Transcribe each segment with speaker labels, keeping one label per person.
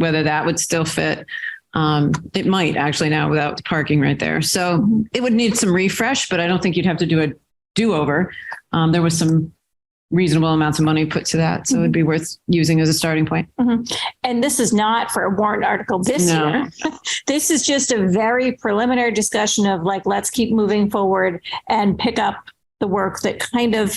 Speaker 1: whether that would still fit. Um, it might actually now without the parking right there. So it would need some refresh, but I don't think you'd have to do a do over. Um, there was some reasonable amounts of money put to that. So it'd be worth using as a starting point.
Speaker 2: And this is not for a warrant article this
Speaker 1: No.
Speaker 2: year. This is just a very preliminary discussion of like, let's keep moving forward and pick up the work that kind of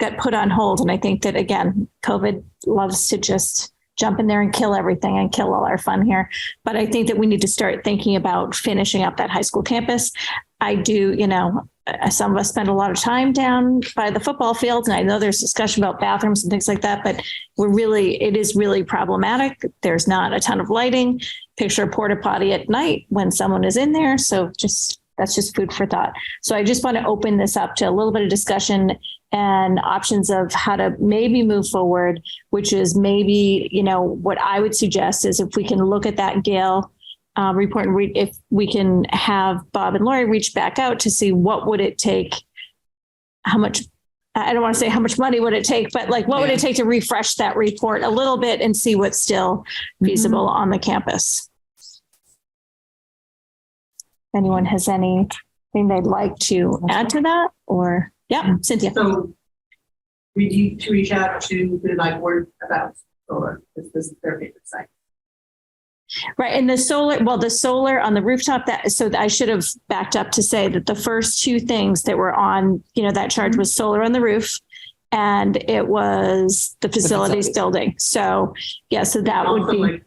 Speaker 2: got put on hold. And I think that again, COVID loves to just jump in there and kill everything and kill all our fun here. But I think that we need to start thinking about finishing up that high school campus. I do, you know, uh, some of us spend a lot of time down by the football fields and I know there's discussion about bathrooms and things like that, but we're really, it is really problematic. There's not a ton of lighting. Picture a porta potty at night when someone is in there. So just, that's just food for thought. So I just want to open this up to a little bit of discussion and options of how to maybe move forward, which is maybe, you know, what I would suggest is if we can look at that Gail uh, report and read, if we can have Bob and Lori reach back out to see what would it take? How much I I don't want to say how much money would it take, but like, what would
Speaker 1: Yeah.
Speaker 2: it take to refresh that report a little bit and see what's still feasible on the campus? If Anyone has anything they'd like to add to that or, yeah, Cynthia?
Speaker 3: So we need to reach out to the like word about solar, this is their favorite site.
Speaker 2: Right, and the solar, well, the solar on the rooftop, that, so I should have backed up to say that the first two things that were on, you know, that charge was solar on the roof and it was the facilities
Speaker 1: facilities.
Speaker 2: building. So, yeah, so that would
Speaker 3: Also,
Speaker 2: be,
Speaker 3: like-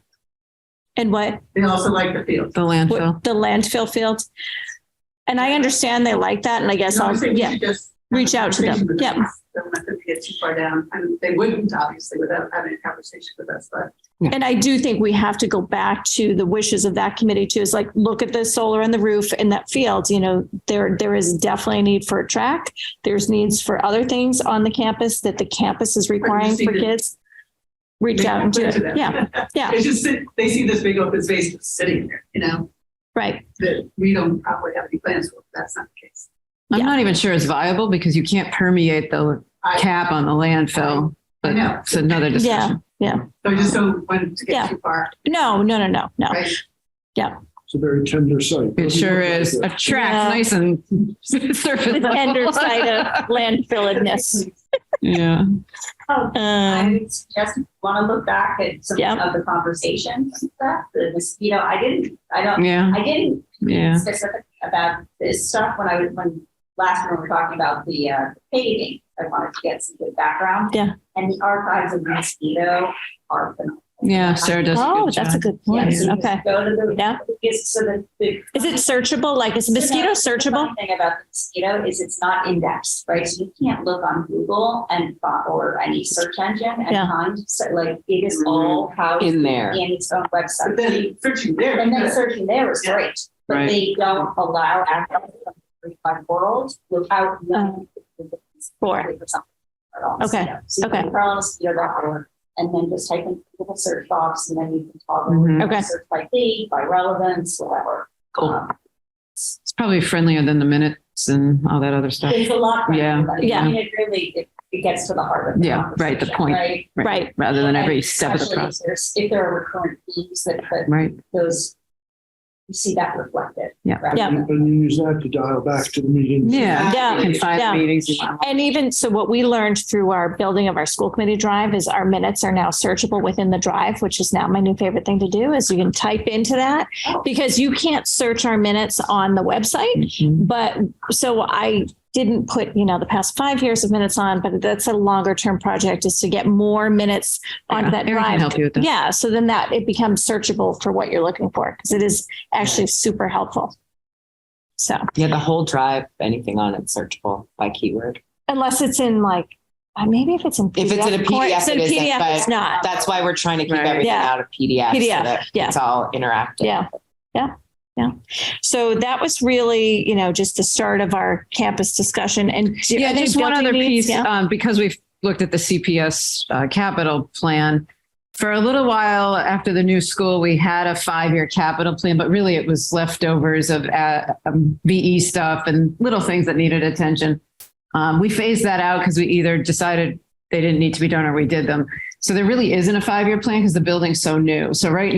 Speaker 2: and what,
Speaker 3: They also like the field.
Speaker 1: The landfill.
Speaker 2: what- the landfill field? And I understand they like that and I guess
Speaker 3: You know, I
Speaker 2: I'll,
Speaker 3: think we
Speaker 2: yeah,
Speaker 3: should just have a
Speaker 2: reach out to them.
Speaker 3: conversation with
Speaker 2: Yep.
Speaker 3: Don't let them get too far down, and they wouldn't obviously without having a conversation with us, but
Speaker 2: And I do think we have to go back to the wishes of that committee too, is like, look at the solar and the roof in that field, you know, there, there is definitely a need for a track. There's needs for other things on the campus that the campus is requiring
Speaker 3: see
Speaker 2: for
Speaker 3: the-
Speaker 2: kids. Reach
Speaker 3: Make
Speaker 2: out
Speaker 3: it
Speaker 2: and do
Speaker 3: clear
Speaker 2: it.
Speaker 3: to them.
Speaker 2: Yeah, yeah,
Speaker 3: It's just, that they see this big open space just sitting there, you know,
Speaker 2: right.
Speaker 3: that we don't probably have any plans for, that's not the case.
Speaker 1: I'm
Speaker 2: yeah.
Speaker 1: not even sure it's viable because you can't permeate the
Speaker 3: I-
Speaker 1: cap on the landfill.
Speaker 3: I
Speaker 1: But
Speaker 3: know.
Speaker 1: it's another discussion.
Speaker 3: So I just don't want to
Speaker 2: Yeah.
Speaker 3: get too far,
Speaker 2: No, no, no, no, no.
Speaker 3: right?
Speaker 4: It's a very tender site.
Speaker 1: It sure is. A
Speaker 2: Yeah.
Speaker 1: track, nice and surface
Speaker 2: The tender
Speaker 1: level.
Speaker 2: side of landfilledness.
Speaker 1: Yeah.
Speaker 2: Um,
Speaker 5: I would just want to look back at some
Speaker 2: Yeah.
Speaker 5: of the conversations and stuff, the mosquito, I didn't, I don't,
Speaker 1: Yeah.
Speaker 5: I didn't
Speaker 1: Yeah.
Speaker 5: specific about this stuff when I was, when last when we were talking about the uh, paving. I wanted to get some good background.
Speaker 2: Yeah.
Speaker 5: And the archives of mosquito are phenomenal.
Speaker 1: Yeah. Sarah does.
Speaker 2: Oh,
Speaker 1: good
Speaker 2: that's a
Speaker 1: job.
Speaker 2: good
Speaker 5: Yeah,
Speaker 2: point.
Speaker 5: so you just
Speaker 2: Okay.
Speaker 5: Go to the.
Speaker 2: Yeah.
Speaker 5: It's so the- the-
Speaker 2: Is it searchable? Like, is
Speaker 5: So now,
Speaker 2: mosquito
Speaker 5: The
Speaker 2: searchable?
Speaker 5: funny thing about the mosquito is it's not indexed, right? So you can't look on Google and, fi- or any search engine and
Speaker 2: Yeah.
Speaker 5: find, so like, it is
Speaker 1: Mm-hmm.
Speaker 5: all housed
Speaker 6: in there.
Speaker 5: in its own
Speaker 3: But
Speaker 5: website.
Speaker 3: then searching there.
Speaker 5: And then searching there is great, but
Speaker 1: Right.
Speaker 5: they don't allow access to the free wide world without knowing. the difference
Speaker 2: Oh. Sure.
Speaker 5: between something at all.
Speaker 2: Okay,
Speaker 5: So you
Speaker 2: okay.
Speaker 5: can Carl Mosquito dot org, and then just type in the search box, and then you can
Speaker 1: Mhm.
Speaker 5: toggle.
Speaker 2: Okay.
Speaker 5: Search by date, by relevance, whatever.
Speaker 1: Cool.
Speaker 5: Um,
Speaker 1: It's probably friendlier than the minutes and all that other stuff.
Speaker 5: It's a lot. for
Speaker 1: Yeah,
Speaker 5: everybody.
Speaker 2: yeah.
Speaker 5: I mean, it really, it, it gets to the heart of the
Speaker 1: Yeah, right, the
Speaker 5: conversation,
Speaker 1: point.
Speaker 5: Right.
Speaker 2: Right.
Speaker 1: Rather than every
Speaker 5: And
Speaker 1: step of the
Speaker 5: especially if
Speaker 1: process.
Speaker 5: There's, if there are recurrent themes that, that
Speaker 1: Right.
Speaker 5: those, you see that reflected.
Speaker 1: Yeah.
Speaker 5: rather
Speaker 2: Yeah.
Speaker 5: than-
Speaker 4: And you use that to dial back to the meeting.
Speaker 1: Yeah.
Speaker 2: Yeah.
Speaker 1: Can find
Speaker 2: Yeah.
Speaker 1: the meetings. you want.
Speaker 2: And even so, what we learned through our building of our school committee drive is our minutes are now searchable within the drive, which is now my new favorite thing to do is you can type into that because you can't search our minutes on the website.
Speaker 1: Mhm.
Speaker 2: But so I didn't put, you know, the past five years of minutes on, but that's a longer term project is to get more minutes onto
Speaker 1: Yeah.
Speaker 2: that
Speaker 1: Eric can
Speaker 2: drive.
Speaker 1: help you with that.
Speaker 2: Yeah. So then that it becomes searchable for what you're looking for because it is actually super helpful. So.
Speaker 6: Yeah, the whole drive, anything on it searchable by keyword.
Speaker 2: Unless it's in like, uh, maybe if it's in.
Speaker 6: If it's in a
Speaker 2: form-
Speaker 6: PDF,
Speaker 2: It's in
Speaker 6: it isn't,
Speaker 2: PDF,
Speaker 6: but-
Speaker 2: it's not.
Speaker 6: That's why we're trying to keep
Speaker 1: Right.
Speaker 6: everything
Speaker 2: Yeah.
Speaker 6: out of PDF,
Speaker 2: PDF,
Speaker 6: so that
Speaker 2: yeah.
Speaker 6: it's all interactive.
Speaker 2: Yeah, yeah, yeah. So that was really, you know, just the start of our campus discussion and. do-
Speaker 1: Yeah,
Speaker 2: are there
Speaker 1: just one
Speaker 2: building
Speaker 1: other
Speaker 2: needs?
Speaker 1: piece,
Speaker 2: Yeah.
Speaker 1: um, because we've looked at the CPS uh, capital plan. For a little while after the new school, we had a five-year capital plan, but really it was leftovers of uh, um, VE stuff and little things that needed attention. Um, We phased that out because we either decided they didn't need to be done or we did them. So there really isn't a five-year plan because the building's so new. So right now.